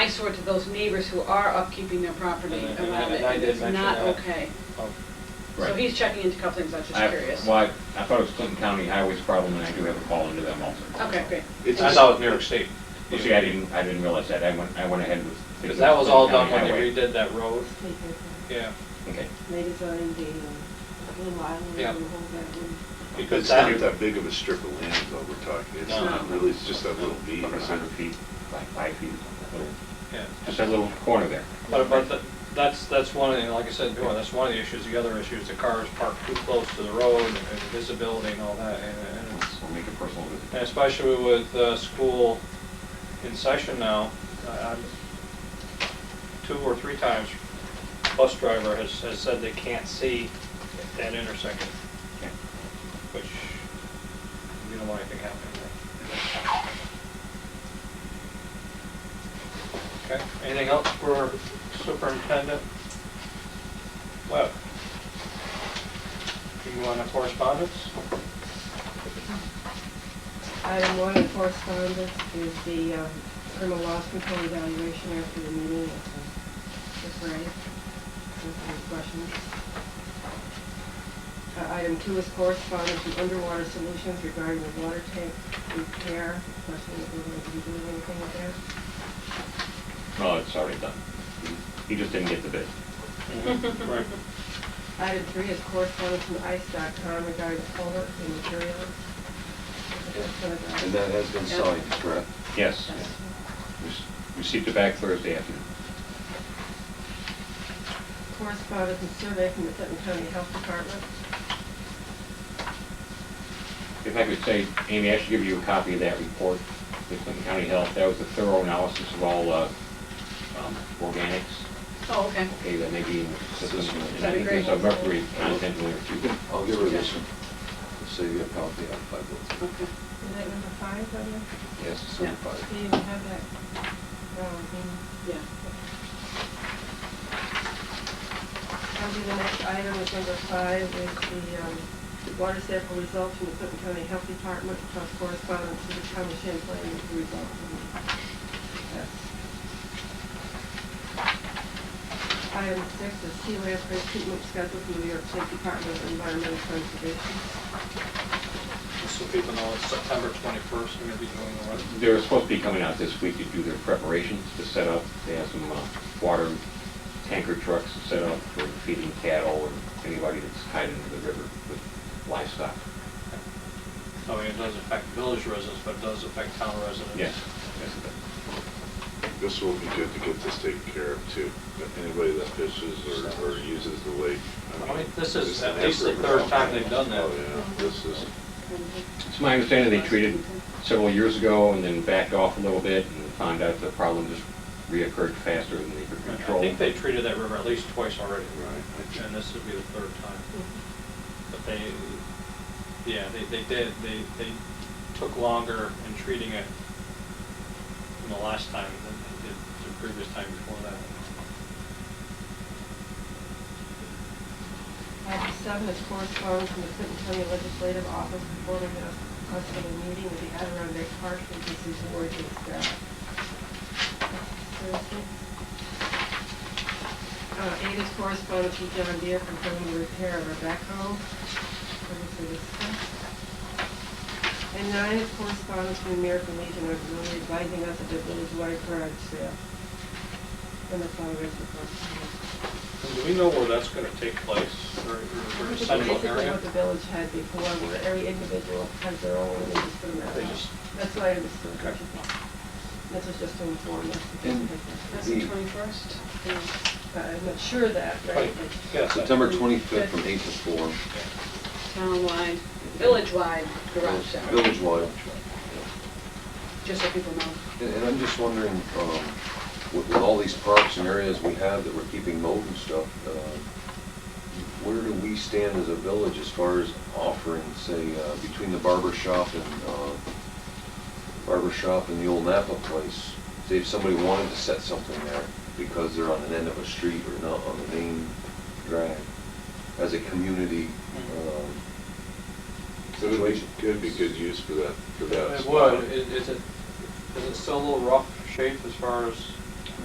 eyesore to those neighbors who are upkeeping their property And I- and I- around it. and I and did It's mention not that. okay. So Right. he's checking into a couple things, I'm just I- curious. Well, I I thought it was Clinton County Highway's problem, and I do have a call into them also. Okay, great. I thought it was New York State, You see, I didn't, I didn't realize that, I went, I went ahead with. thinking because that was all done when they Clinton redid that road, yeah. County Highway. Okay, Ladies are in the uh, Blue Island, Yeah. the whole that one. Because It's not that, that big of a strip of land is all we're talking. It's No. not really, it's just that little bead. about a hundred feet, like five feet, little- yeah. just a little corner there. But, but that- that's, that's one of the, like I said before, that's one of the issues. The other issue is the cars parked too close to the road and visibility and all that. And and it's, We'll make a personal visit. and especially with, uh, school in session now, I- I'm, two or three times, bus driver has, has said they can't see that intersection, Okay. which we don't want anything happening there. Okay, anything else for Superintendent Webb? Do you want to correspondence? Item one in correspondence is the um, criminal loss control evaluation after the meeting. It's ready. Any questions? Uh, Item two is correspondence from Underwater Solutions regarding the water tank repair. Question, if we're going to be doing anything with that? No, it's already done. He just didn't get the bid. Right. Item three is correspondence from ICE.com regarding the culvert and materials. And that has been signed, correct? Yes. Yes. Re- Received it back Thursday afternoon. Correspondence and survey from the Clinton County Health Department. If I could say, Amy, I should give you a copy of that report, the Clinton County Health, that was a thorough analysis of all uh, um, organics, Oh, okay. okay, that may be in the system. And I That'd be think there's great. a mercury content in there too. I'll give her this one. Save you a copy of five votes. Okay. Is that number five on there? Yes, it's certified. Do you have that? No, I mean, Yeah. that'll be the next item, is number five, is the um, water sample results from the Clinton County Health Department, plus correspondence to the county of Champlain, with the results. from that. Item six is sea lamprey treatment schedule from the New York State Department of Environmental Conservation. Just so people know, it's September 21st, we're going to be doing the rest. They're supposed to be coming out this week to do their preparations to set up. They have some uh, water tanker trucks set up for feeding cattle and anybody that's tied into the river with livestock. I mean, it does affect village residents, but it does affect town residents. Yes. yes, it does. This will be good to get this taken care of too. But Anybody that fishes or, or uses the lake. I mean, this is it's at an least the effort. third time they've done that. Oh, yeah, this is, It's my understanding they treated several years ago and then backed off a little bit and found out the problem just reoccurred faster than they could I control. think they treated that river at least twice already. Right. And this would be the third time. But they, yeah, they, they did, they, they took longer in treating it than the last time than they did the previous time before that. Item seven is correspondence from the Clinton County Legislative Office informing us us of a meeting with the Adirondack Park Agency Board to staff. Thursday. Uh, eight is correspondence from John Deere confirming the repair of our backhoe. Previously discussed. And nine is correspondence from the American Legion of Women advising us of the village-wide garage sale. And the fundraiser for And do we know where that's going to take place or, or or central Basically area? what the village had before, where every individual has their own, and they just put them out. They just- That's what I understood. Okay. This was just to inform us. And- That's the twenty-first? But I'm not sure of that, right? Right, yes. I- September 25th from 8 to 4, Townwide, village-wide garage sale, village wide. just so people know. And and I'm just wondering, um, with with all these parks and areas we have that we're keeping mowed and stuff, uh, where do we stand as a village as far as offering, say, uh, between the barber shop and, uh, barber shop and the old Napa place? Say if somebody wanted to set something there because they're on an end of a street or not on the main drag, as a community um, it would be- situation? it would be good use for that, for that. It spot. would, It- is it, is it still a little rough shape as far as